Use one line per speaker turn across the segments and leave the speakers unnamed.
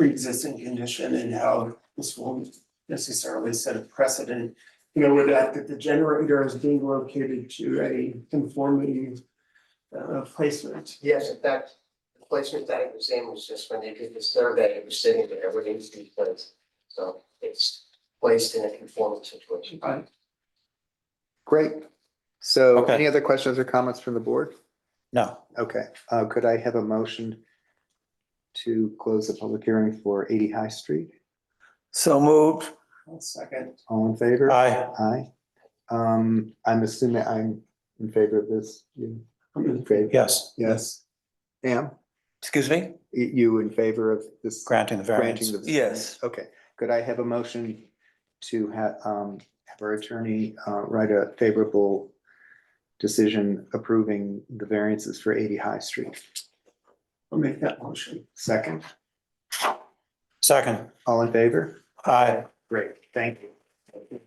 pre-existing condition and how this will necessarily set a precedent. You know, with that, that the generator is being located to a conforming uh placement.
Yes, in fact, the placement that it was in was just when they did the survey, it was sitting there, everything was placed. So it's placed in a conformal situation.
Right.
Great. So
Okay.
any other questions or comments from the board?
No,
Okay, uh, could I have a motion to close the public hearing for eighty High Street?
so moved.
One second.
All in favor?
Aye.
Aye. Um, I'm assuming I'm in favor of this. You in favor?
Yes,
Yes. Am,
Excuse me?
you in favor of this?
granting the variance.
Granting the.
Yes.
Okay, could I have a motion to have, um, have our attorney, uh, write a favorable decision approving the variances for eighty High Street?
I'll make that motion.
Second,
Second,
all in favor?
aye.
Great, thank you.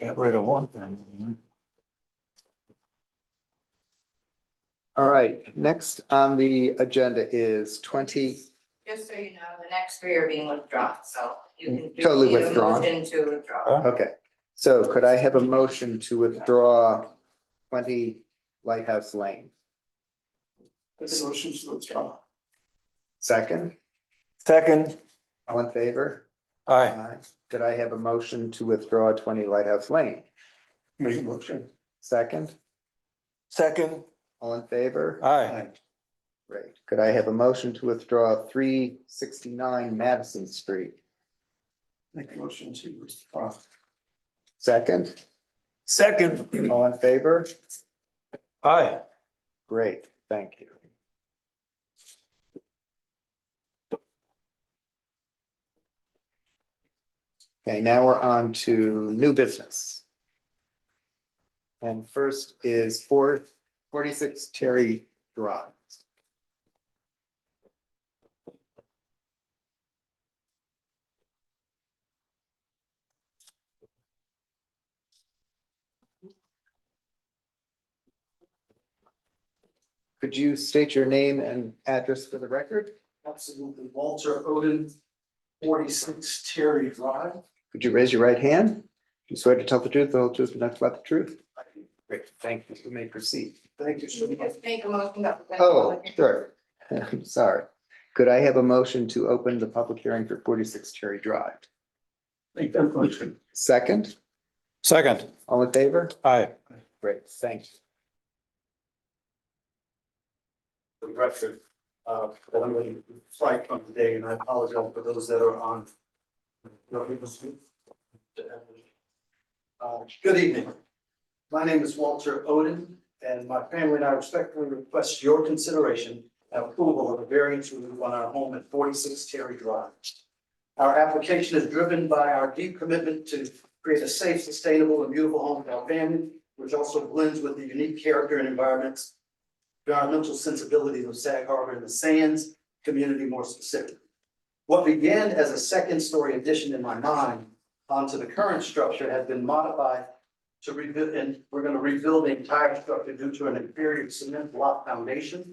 Got rid of one thing.
All right, next on the agenda is twenty,
Just so you know, the next three are being withdrawn, so you can. do-
Totally
need a
withdrawn.
Motion to withdraw.
Huh?
okay. So could I have a motion to withdraw twenty Lighthouse Lane?
This motion to withdraw.
Second,
Second,
all in favor?
Aye,
Aye. Could I have a motion to withdraw twenty Lighthouse Lane?
Make a motion.
Second,
second,
all in favor?
aye,
Great. Could I have a motion to withdraw three sixty-nine Madison Street?
Make a motion to withdraw.
Second,
second.
all in favor?
aye.
Great, thank you. Okay, now we're on to new business. And first is four, forty-six Terry Drive. Could you state your name and address for the record?
Absolutely. Walter Oden, forty-six Terry Drive.
Could you raise your right hand? Do you swear to tell the truth, the whole truth, and nothing but the truth? Great, thank you. You may proceed.
Thank you so
You
much.
Just make a motion that. we're
Oh,
going to-
sure. I'm sorry. Could I have a motion to open the public hearing for forty-six Cherry Drive?
Make that motion.
Second,
Second,
all in favor?
aye.
Great, thank you.
the record. Uh, that I'm going to fight on today, and I apologize for those that are on. no, it was- Uh, good evening. My name is Walter Oden, and my family and I respectfully request your consideration and approval of a variance relief on our home at forty-six Terry Drive. Our application is driven by our deep commitment to create a safe, sustainable, and beautiful home for our family, which also blends with the unique character and environments environmental sensibilities of Sag Harbor and the Sands community more specifically. What began as a second-story addition in my mind onto the current structure has been modified to rebuild, and we're gonna rebuild the entire structure due to an inferior cement block foundation.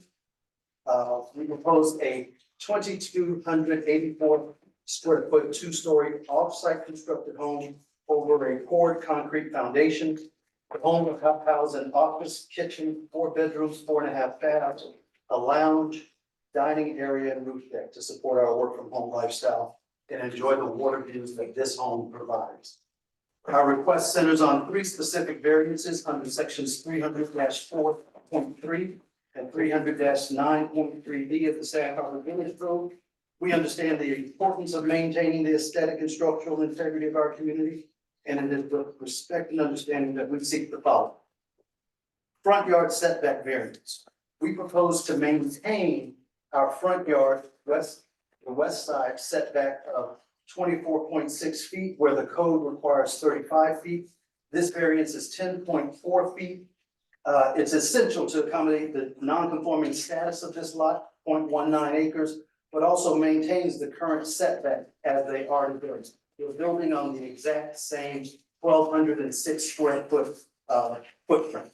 Uh, we propose a twenty-two hundred eighty-four square foot, two-story, off-site constructed home over a poured concrete foundation the home will help house an office, kitchen, four bedrooms, four and a half baths, a lounge, dining area, and roof deck to support our work from home lifestyle and enjoy the water views that this home provides. Our request centers on three specific variances under sections three hundred four point three and three hundred nine point three B of the Sag Harbor Village Code. We understand the importance of maintaining the aesthetic and structural integrity of our community and it is with respect and understanding that we seek the following. Front yard setback variance. We propose to maintain our front yard west, the west side setback of twenty-four point six feet where the code requires thirty-five feet. This variance is ten point four feet. Uh, it's essential to accommodate the non-conforming status of this lot, 0.19 acres, but also maintains the current setback as they are in variance you're building on the exact same twelve hundred and six square foot uh footprint.